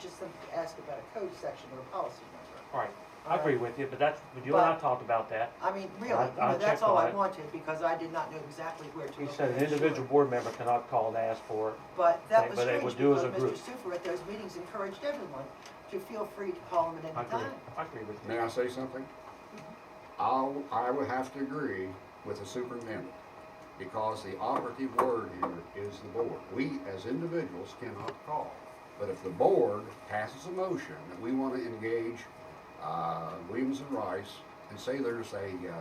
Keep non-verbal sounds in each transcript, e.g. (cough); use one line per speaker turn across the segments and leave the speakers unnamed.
just something to ask about a code section or a policy number.
All right, I agree with you, but that's, but you and I talked about that.
I mean, really,
I-
you know,
I
that's
checked
all
on
I
it.
wanted, because I did not know exactly where to
He
look.
said
for
an
that, sure.
individual board member cannot call and ask for it.
But
They-
that was
but they
strange,
would do as
because
a
Mr.
group.
Sufer at those meetings encouraged everyone to feel free to call him at
I I
any
agree,
time.
I agree with you.
May I say something? I'll, I would have to agree with the superintendent, because the operative word here is the board. We, as individuals, cannot call. But if the board passes a motion that we want to engage, uh, Williams and Rice, and say there's a, uh,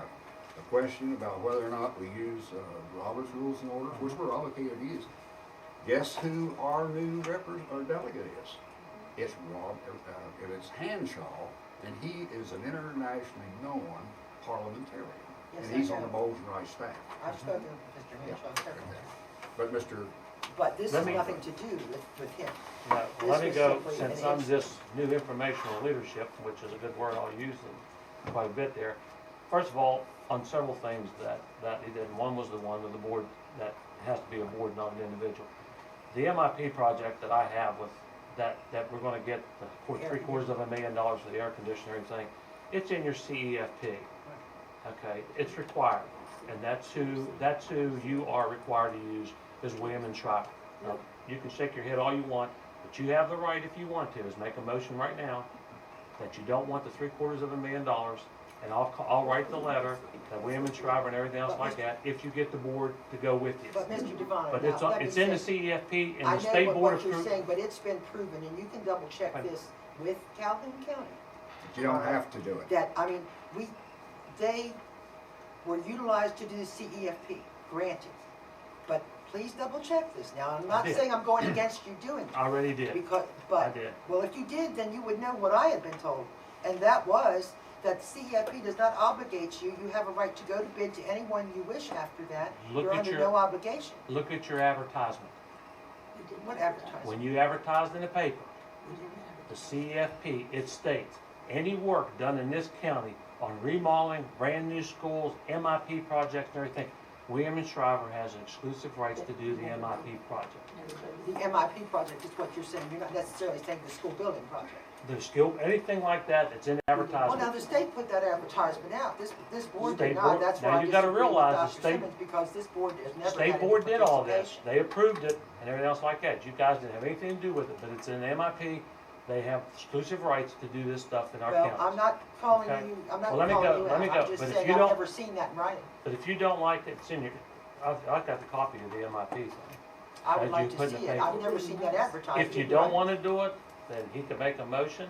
a question about whether or not we use, uh, Robert's Rules and Orders, which we're obligated to use, guess who our new repres our delegate is? It's Rob, uh, it's Hanshaw, and he is an internationally known parliamentarian.
Yes,
And
I
he's on
know.
the Bowles and Rice staff.
I've spoken with Mr.
Yeah.
Henshaw several times,
But Mr.,
but this
Let
has
me-
nothing to do with, with him.
Now,
This
let me
was
go,
simply
since
an
I'm
ins-
just new informational leadership, which is a good word, I'll use it quite a bit there. First of all, on several things that, that he did, and one was the one with the board, that has to be a board, not an individual. The MIP project that I have with, that, that we're gonna get, the four-
Air
three quarters of a million dollars for the air conditioner and thing, it's in your E CEFP. Okay, it's required, and that's who, that's who you are required to use, is William and Schreiber. Now, You can shake your head all you want, but you have the right, if you want to, is make a motion right now that you don't want the three quarters of a million dollars, and I'll, ca- I'll write the letter, that William and Schreiber and everything else like that, if you get the board to go with you.
But Mr. Devon,
But
now,
it's,
let me
it's in the
say-
CEFP and
I
the state
know
board of
what- what you're
scrutiny.
saying, but it's been proven, and you can double check
Right.
this with Calhoun County,
you don't have to do it.
that, I mean, we, they were utilized to do the CEFP, granted. But please double check this now, I'm not
did.
saying I'm
(clears throat)
going against you doing it,
I already did.
because,
I
but,
did.
well, if you did, then you would know what I had been told. And that was that CEFP does not obligate you, you have a right to go to bid to anyone you wish after that.
Look
You're
at
under
your-
no obligation.
Look at your advertisement.
You did- What advertisement?
When you advertised in the paper, the CFP, it states, any work done in this county on remodeling, brand-new schools, MIP projects and everything, William and Shriver has exclusive rights to do the MIP project.
The MIP project is what you're saying, you're not necessarily saying the school building project.
The skill, anything like that that's in
Well, Oh, now,
advertisement,
the state put that advertisement out, this, this board
State
did
board-
not, that's
now
why I
you gotta
disagree with
realize the
Dr.
state-
Simmons, because this board has never had any
state board did all this,
participation.
they approved it and everything else like that. You guys didn't have anything to do with it, but it's in the MIP, they have exclusive rights to do this stuff in our
Well, I'm
county.
not calling
Okay.
you, I'm not
Well,
calling
let me
you
go- let
out,
me
I'm
go.
just
But if
saying,
you
I've
don't-
never seen that in writing.
But if you don't like it, it's in your, I've, I've got the copy of the MIP thing.
I
As
would
you
like to
put in
see
the
it, I've never seen that advertised.
If you don't wanna do it, then he can make a motion,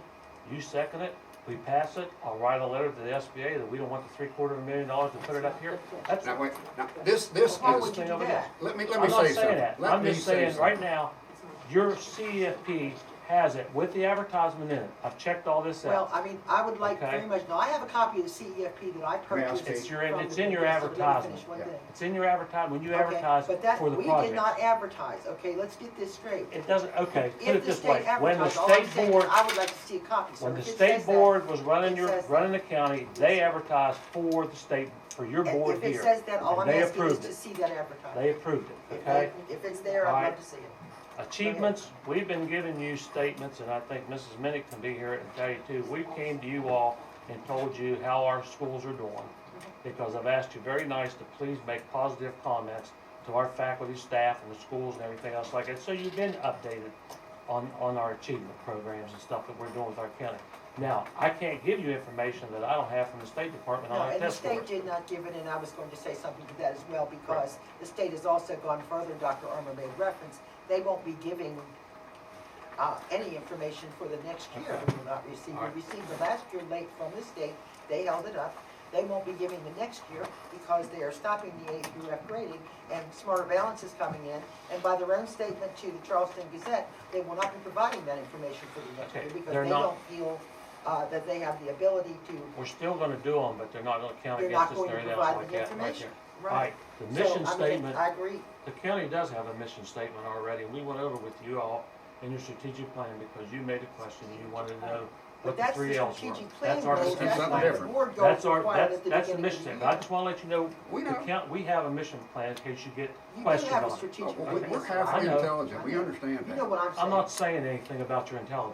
you second it, we pass it, I'll write a letter to the SBA that we don't want the three quarter of a million dollars to put it up here. That's,
Now, wait, now, this, this
Why would
is,
you
thing
do
over
that?
let me, let me
I'm not
say
saying
something.
that,
Let
I'm
me
just
say
saying, right
something.
now, your CFP has it with the advertisement in it, I've checked all this
Well,
out.
I mean, I would like
Okay.
very much, now, I have a copy of the CEFP that I
May I
purchased.
speak? It's
your-
from
it's
the-
in your
so let me finish
advertisement.
one
Yeah.
thing.
It's in your advertise, when you
Okay,
advertise for
but
the
that- We did not
project.
advertise, okay, let's get this straight.
It doesn't, okay, put
If
it
the
this
state
way, when the
advertised, all I'm
state
saying,
board
is I would like to see a copy, so
When the
if it
state
says that-
board was running
it
your,
says that.
running the county, they advertised for the state, for your
And
board
If it
here.
says that, all
and
I'm
they
asking is
approved
to
it.
see that advertised.
They approved it,
If-
okay?
If it's there, I'd love
Alright.
to see it.
Achievements, we've been giving you statements, and I think Mrs. Minnick can be here and tell you too. We came to you all and told you how our schools are doing, because I've asked you very nice to please make positive comments to our faculty, staff, and the schools and everything else like that. So you've been updated on, on our achievement programs and stuff that we're doing with our county. Now, I can't give you information that I don't have from the State Department
No,
on our
and the
test scores.
state did not give it, and I was going to say something to that as well, because the state has also gone further, Dr. Armour made reference, they won't be giving, uh, any information for the next year, we will not receive, we
Alright.
received the last year late from the state, they held it up, they won't be giving the next year, because they are stopping the A through F grading, and Smarter Balance is coming in, and by their own statement to the Charleston Gazette, they will not be providing that information for the next
Okay,
year, because
they're
they
not-
don't feel, uh, that they have the ability to
We're still gonna do them, but they're not gonna count
They're not
against us
going
or
to
anything else
provide
like
the
that, right
information.
there. Right, the
So, I
mission
mean,
statement,
I agree,
the county does have a mission statement already, and we went over with you all in your strategic plan, because you made a question, and you wanted to know
but
what the
that's the
three Ls were.
strategic plan,
That's our
goal.
mission
that's
statement.
something
not the
different.
board goal
That's our,
required
that's,
at the
that's
beginning
the
of
mission
the year.
statement, I just wanna let you know,
We
the
know.
count, we have a mission plan in case you get
You do
questioned
have a
on it.
Oh,
strategic.
well, we-
plan.
We're
I
halfway
know.
intelligent, we understand
You know
that.
what I'm saying.
I'm not saying anything about your intelligence.